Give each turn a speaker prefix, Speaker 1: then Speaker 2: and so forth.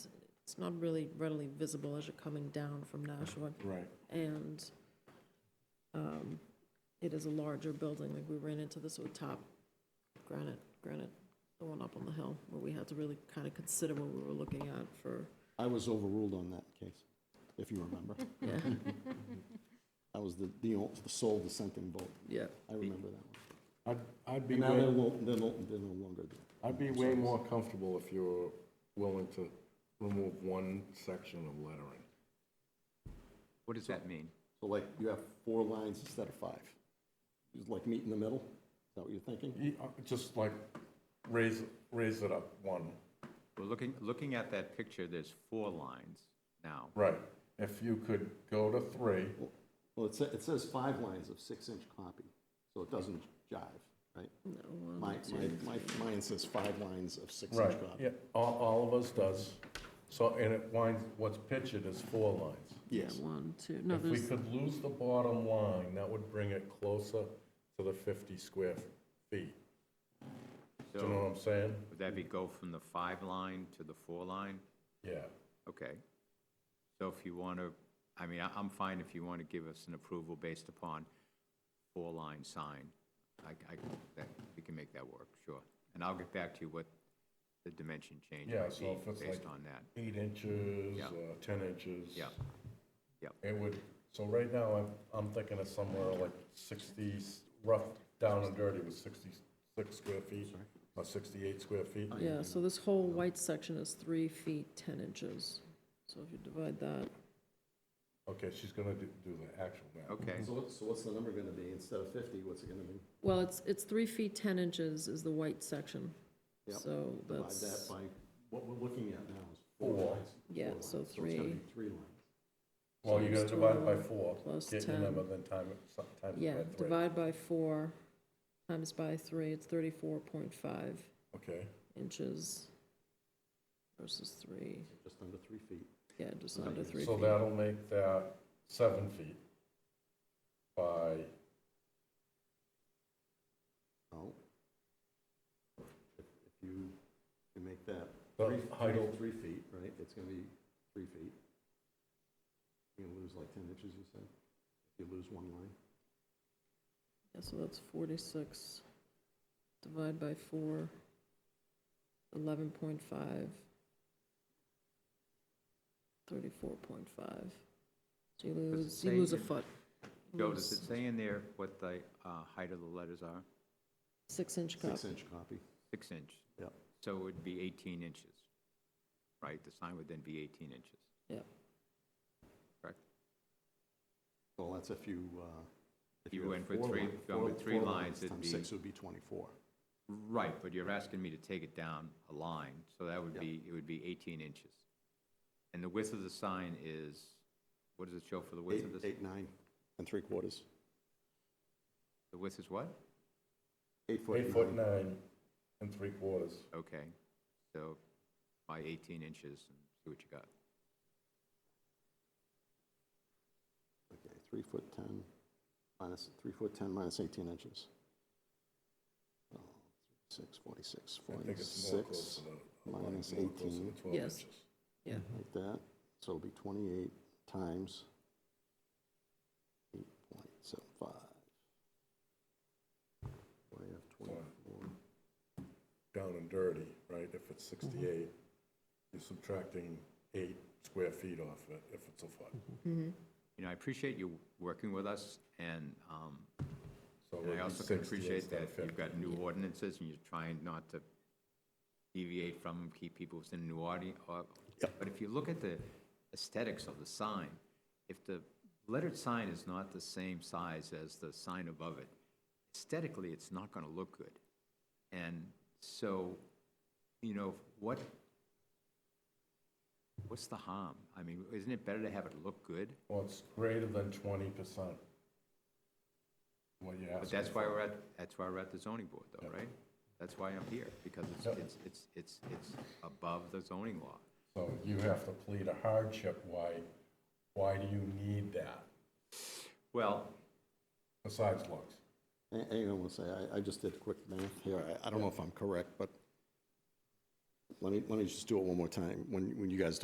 Speaker 1: It's not really readily visible as you're coming down from Nashua.
Speaker 2: Right.
Speaker 1: And um, it is a larger building, like we ran into this with Top Granite, Granite, the one up on the hill, where we had to really kind of consider what we were looking at for,
Speaker 2: I was overruled on that case, if you remember.
Speaker 1: yeah,
Speaker 2: I was the, the o- the sole dissenting vote.
Speaker 1: yeah.
Speaker 2: I remember that one.
Speaker 3: I'd, I'd be,
Speaker 2: And now they're,
Speaker 3: way-
Speaker 2: lo- they're no, they're no longer there.
Speaker 3: I'd be way more comfortable if you were willing to remove one section of lettering.
Speaker 4: What does that mean?
Speaker 2: So like, you have four lines instead of five. Just like meet in the middle? Is that what you're thinking?
Speaker 3: You- uh, Just like raise, raise it up one.
Speaker 4: Well, looking, looking at that picture, there's four lines now.
Speaker 3: Right. If you could go to three,
Speaker 2: Well, it says, it says five lines of six-inch copy, so it doesn't jive, right?
Speaker 1: No, one,
Speaker 2: My,
Speaker 1: two,
Speaker 2: my, my, mine says five lines of six-inch
Speaker 3: right,
Speaker 2: copy.
Speaker 3: yeah, all, all of us does. So, and it winds, what's pictured is four lines.
Speaker 1: yeah,
Speaker 2: Yes.
Speaker 1: one, two, no,
Speaker 3: If we
Speaker 1: there's,
Speaker 3: could lose the bottom line, that would bring it closer to the 50 square feet. Do you know
Speaker 4: So
Speaker 3: what I'm saying?
Speaker 4: would that be go from the five line to the four line?
Speaker 3: Yeah.
Speaker 4: Okay. So if you want to, I mean, I- I'm fine if you want to give us an approval based upon four-line sign. I, I, that, we can make that work, sure. And I'll get back to you what the dimension change
Speaker 3: Yeah,
Speaker 4: might
Speaker 3: so if it's
Speaker 4: be based
Speaker 3: like-
Speaker 4: on that.
Speaker 3: eight inches,
Speaker 4: Yeah.
Speaker 3: or 10 inches.
Speaker 4: Yeah. Yeah.
Speaker 3: It would, so right now, I'm, I'm thinking of somewhere like 60, rough, down and dirty was 66 square feet, or 68 square feet.
Speaker 1: yeah, so this whole white section is three feet, 10 inches. So if you divide that,
Speaker 3: Okay, she's gonna do, do the actual math.
Speaker 4: Okay,
Speaker 2: So, what- so what's the number gonna be? Instead of fifty, what's it gonna be?
Speaker 1: well, it's, it's three feet, 10 inches is the white section.
Speaker 2: Yep.
Speaker 1: So
Speaker 2: Divide that
Speaker 1: that's,
Speaker 2: by, what we're looking at now is four
Speaker 3: Four.
Speaker 2: lines.
Speaker 1: yeah,
Speaker 2: Four
Speaker 1: so
Speaker 2: lines. it's gonna
Speaker 1: three
Speaker 2: be Three lines.
Speaker 3: Well, you gotta divide by
Speaker 1: Times
Speaker 3: four,
Speaker 1: plus
Speaker 3: get your
Speaker 1: 10.
Speaker 3: number, then time it, so- times
Speaker 1: Yeah,
Speaker 3: it by three.
Speaker 1: divide by four, times by three, it's thirty-four point five
Speaker 3: Okay,
Speaker 1: inches versus three,
Speaker 2: just under three feet.
Speaker 1: yeah, just under three
Speaker 3: so
Speaker 1: feet.
Speaker 3: that'll make that seven feet by,
Speaker 2: No. Oh. If if you, you make that
Speaker 3: The
Speaker 2: three,
Speaker 3: height.
Speaker 2: three- three feet, right, it's gonna be three feet. You're gonna lose like ten inches, you said? If you lose one line?
Speaker 1: Yeah, so that's forty-six, divide by four, eleven point five, thirty-four point five. So you lose, you
Speaker 4: say
Speaker 1: lose a
Speaker 4: in-
Speaker 1: foot. You
Speaker 4: Joe,
Speaker 1: lose
Speaker 4: does it say in there what the uh, height of the letters are?
Speaker 1: Six-inch cup,
Speaker 2: Six-inch copy.
Speaker 4: Six inch?
Speaker 2: Yep.
Speaker 4: So it would be 18 inches, right? The sign would then be 18 inches.
Speaker 1: yeah,
Speaker 2: Well, that's if you, uh. if
Speaker 4: You
Speaker 2: had
Speaker 4: went with
Speaker 2: four
Speaker 4: three-
Speaker 2: line-
Speaker 4: gone
Speaker 2: four-
Speaker 4: with three
Speaker 2: four
Speaker 4: lines, it'd
Speaker 2: times
Speaker 4: be-
Speaker 2: Six would be twenty-four.
Speaker 4: Right, but you're asking me to take it down a line, so that would
Speaker 2: Yeah.
Speaker 4: be, it would be 18 inches. And the width of the sign is, what does it show for the width
Speaker 2: Eight,
Speaker 4: of this?
Speaker 2: eight, nine, and three quarters.
Speaker 4: The width is what?
Speaker 2: Eight foot.
Speaker 3: eight foot nine and three quarters.
Speaker 4: Okay, so by 18 inches, and see what you got.
Speaker 2: Okay, three foot ten minus, three foot ten minus eighteen inches. Oh, Six, forty-six,
Speaker 3: I think it's
Speaker 2: forty-six.
Speaker 3: more close to the- like
Speaker 2: minus
Speaker 3: more close to
Speaker 2: 18.
Speaker 3: the 12
Speaker 1: Yes.
Speaker 3: inches.
Speaker 1: yeah.
Speaker 2: like that, so it'll be 28 times 8.75. Why have 24?
Speaker 3: down and dirty, right? If it's 68, you're subtracting eight square feet off it if it's a foot.
Speaker 1: Mm-hmm.
Speaker 4: You know, I appreciate you working with us, and um,
Speaker 3: So
Speaker 4: and
Speaker 3: it'd
Speaker 4: I
Speaker 3: be
Speaker 4: also can
Speaker 3: 60
Speaker 4: appreciate
Speaker 3: instead
Speaker 4: that
Speaker 3: of
Speaker 4: you've
Speaker 3: 50.
Speaker 4: got new ordinances, and you're trying not to deviate from them, keep people within new audience. But if you look at the aesthetics of the sign, if the lettered sign is not the same size as the sign above it, aesthetically, it's not going to look good. And so, you know, what, what's the harm? I mean, isn't it better to have it look good?
Speaker 3: Well, it's greater than 20%. What you
Speaker 4: But
Speaker 3: asked.
Speaker 4: that's why we're at, that's why we're at the zoning board though,
Speaker 3: Yeah.
Speaker 4: right? That's why I'm here, because
Speaker 3: Yeah.
Speaker 4: it's, it's, it's, it's, it's above the zoning law.
Speaker 3: So you have to plead a hardship. Why, why do you need that
Speaker 4: Well,
Speaker 3: besides looks?
Speaker 2: And- and I want to say, I- I just did quick math here, I- I don't know if I'm correct, but let me, let me just do it one more time, when, when you guys